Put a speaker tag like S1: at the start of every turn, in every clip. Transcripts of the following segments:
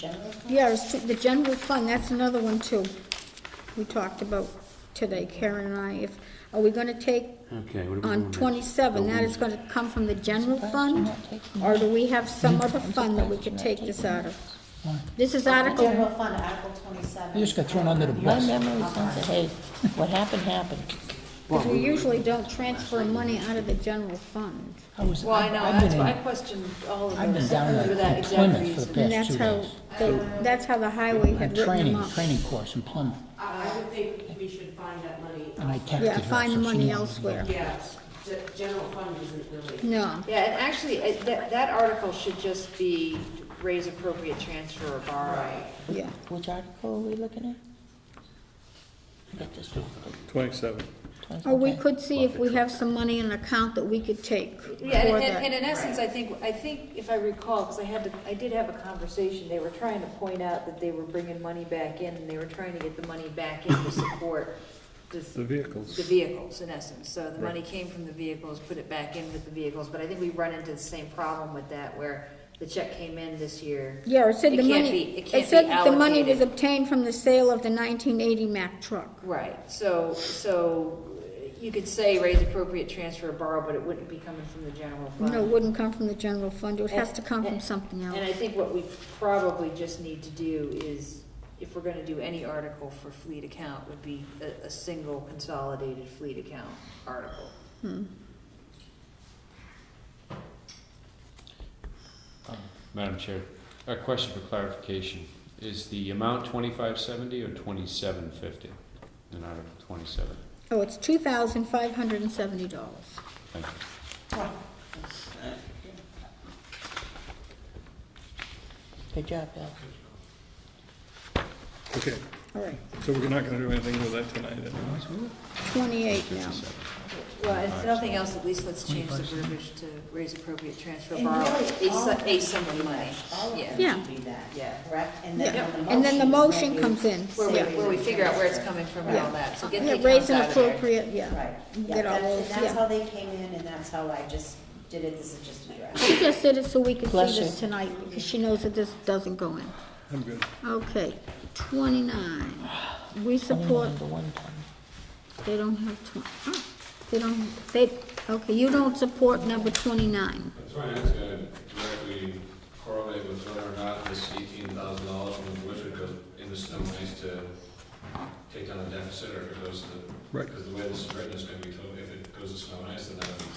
S1: General fund?
S2: Yeah, it's to- the general fund, that's another one too. We talked about today, Karen and I, if, are we gonna take
S3: Okay, what are we doing?
S2: on
S3: next?
S2: twenty-seven, that is gonna come from the general fund? Or do we have some other fund that we could take this out of? This is
S1: The
S2: Article,
S1: general fund, Article twenty-seven.
S4: You just got thrown under the
S1: Okay.
S4: bus.
S5: My memory says that, hey, what happened, happened.
S2: because we usually don't transfer money out of the general fund.
S4: I was,
S6: Well, I
S4: I've
S6: know,
S4: I've
S6: that's
S4: been
S6: why I
S4: in,
S6: questioned all of
S4: I've been
S6: those
S4: down
S6: for that
S4: in
S6: exact
S4: Plymouth for the
S6: reason.
S2: And
S4: past
S2: that's
S4: two
S2: how,
S4: days.
S2: they- that's how the highway
S4: A
S2: had written them
S4: training,
S2: up.
S4: training course in Plymouth,
S7: I I would think we should find that money.
S4: and I
S7: elsewhere.
S4: texted her.
S2: Yeah, find the
S4: so she
S2: money
S4: knew.
S2: elsewhere.
S7: Yes, ge- general fund isn't really,
S2: No,
S6: Yeah, and actually, it- that, that article should just be raise appropriate transfer or borrow.
S7: right.
S2: yeah,
S5: Which article are we looking at? I got this one.
S8: Twenty-seven.
S2: or we could see if we have some money in an account that we could take for
S6: Yeah, and, and and
S2: that.
S6: in essence, I think, I think if I recall, because I had, the- I did have a conversation, they were trying to point out that they were bringing money back in, and they were trying to get the money back in to support this-
S8: The vehicles.
S6: The vehicles, in essence, so the
S8: Right.
S6: money came from the vehicles, put it back in with the vehicles, but I think we run into the same problem with that, where the check came in this year.
S2: Yeah, it said
S6: It
S2: the
S6: can't
S2: money,
S6: be- it
S2: it
S6: can't
S2: said
S6: be
S2: that the money was
S6: allocated.
S2: obtained from the sale of the nineteen eighty Mack truck.
S6: Right, so, so you could say raise appropriate transfer or borrow, but it wouldn't be coming from the general fund.
S2: No, it wouldn't come from the general fund, it has to come from something
S6: And I
S2: else.
S6: think what we probably just need to do is, if we're gonna do any article for fleet account, would be a, a single consolidated fleet account article.
S9: Madam Chair, a question for clarification. Is the amount twenty-five seventy or twenty-seven fifty in Article twenty-seven?
S2: Oh, it's two thousand five hundred and seventy dollars.
S9: Thank you.
S5: Good job, Bill.
S8: Okay,
S2: All right,
S8: so we're not gonna do anything with that tonight, then?
S2: twenty-eight now.
S6: Well, if nothing else, at least let's change the verbiage to raise appropriate transfer or borrow,
S1: And really,
S6: a,
S1: all
S6: su-
S1: of
S6: a
S1: them
S6: sum of
S1: should do
S6: money,
S1: that. All of
S6: yeah.
S1: them
S2: Yeah.
S1: should do that,
S6: Yeah.
S1: correct? And
S2: Yeah.
S1: then
S2: And then the motion
S1: is
S2: comes
S1: when
S2: in.
S1: you
S6: Where we,
S1: say
S6: where we
S1: raise
S6: figure out where it's
S1: appropriate
S6: coming from and
S2: Yeah,
S6: all that, so get the
S2: yeah,
S6: accounts
S2: raising
S6: out of there.
S2: appropriate, yeah.
S1: Right, yeah,
S2: Get all
S1: that-
S2: those,
S1: that's how
S2: yeah.
S1: they came in, and that's how I just did it, this is just a draft.
S2: She just did it so we could
S5: Bless
S2: see this
S5: you.
S2: tonight, because she knows that this doesn't go in.
S8: I'm good.
S2: Okay, twenty-nine, we support,
S5: Number one time.
S2: they don't have twen, oh, they don't, they, okay, you don't support number twenty-nine.
S10: That's right, it's gonna uh, directly correlate with whether or not this eighteen thousand dollars from the budget goes in the snow ice to take down the deficit, or if it goes to the.
S8: Right.
S10: Because the way this is written is gonna be totally, if it goes to snow and ice, then that'll be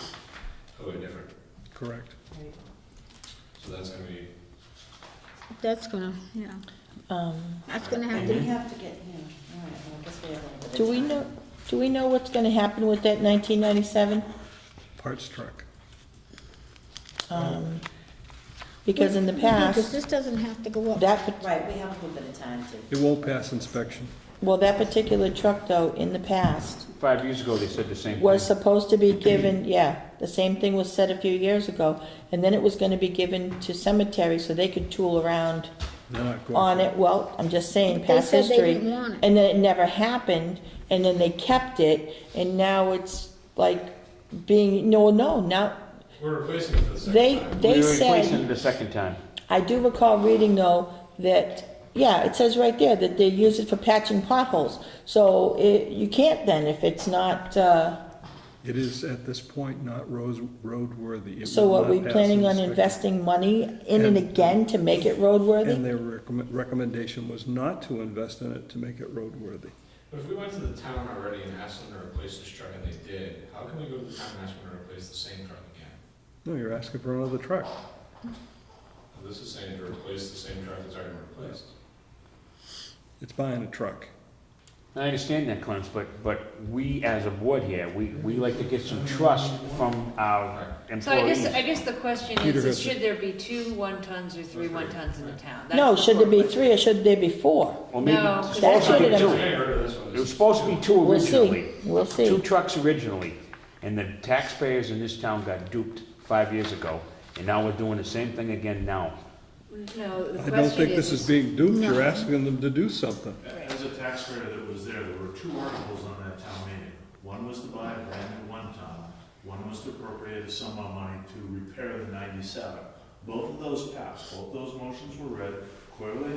S10: totally different.
S8: Correct.
S10: So that's gonna be,
S2: That's gonna, yeah,
S5: Um,
S2: that's gonna have
S1: And
S2: to
S1: we have to get, yeah, all right, well, I guess we have a little bit of
S5: Do we
S1: time.
S5: know, do we know what's gonna happen with that nineteen ninety-seven?
S8: Parts truck.
S5: Um, because in the
S2: Because
S5: past,
S2: this doesn't have to go up.
S5: that, pa-
S1: Right, we have a little bit of time to.
S8: It won't pass inspection.
S5: well, that particular truck though, in the past,
S3: Five years ago, they said the same thing.
S5: was supposed to be given, yeah, the same thing was said a few years ago. And then it was gonna be given to cemeteries so they could tool around
S8: They're not going
S5: on
S8: for
S5: it, well, I'm just saying,
S2: They
S5: past
S2: said they
S5: history.
S2: didn't want it.
S5: And then it never happened, and then they kept it, and now it's like being, no, no, now,
S10: we're replacing it for the
S5: they,
S10: second time.
S5: they
S3: We were replacing it
S5: said,
S3: the second time.
S5: I do recall reading though, that, yeah, it says right there that they use it for patching potholes. So it, you can't then if it's not, uh,
S8: It is at this point not roads, roadworthy. It
S5: so
S8: will
S5: are
S8: not
S5: we
S8: pass
S5: planning on
S8: inspection.
S5: investing money in it
S8: And-
S5: again to make it
S8: And
S5: roadworthy?
S8: their recommend- recommendation was not to invest in it to make it roadworthy.
S10: But if we went to the town already and asked them to replace this truck and they did, how can we go to the town and ask them to replace the same truck again?
S8: No, you're asking for another truck.
S10: This is saying to replace the same truck that's already been replaced.
S8: It's buying a truck.
S3: I understand that, Clarence, but, but we as a board here, we, we like to get some trust from our
S6: So I
S3: employees.
S6: guess, I guess the question
S8: Peter
S6: is,
S8: has
S6: is
S8: it.
S6: should there be two one-tons or three one-tons in the town? That's
S5: No,
S6: the
S5: should there be
S6: core question.
S5: three or should there be four?
S3: Or maybe
S6: No,
S3: it's
S6: 'cause
S3: supposed to
S5: that's
S3: be
S5: what it
S3: two.
S5: is.
S10: I heard of this one.
S3: It was supposed to be two
S5: We'll
S3: originally.
S5: see, we'll see.
S3: Two trucks originally, and the taxpayers in this town got duped five years ago, and now we're doing the same thing again now.
S6: No, the
S8: I don't
S6: question
S8: think this is being duped. You're asking them to do something.
S11: As a taxpayer that was there, there were two articles on that town meeting. One was to buy a brand new one-ton, one was to appropriate a sum of money to repair the ninety-seven. Both of those passed, both those motions were read, clearly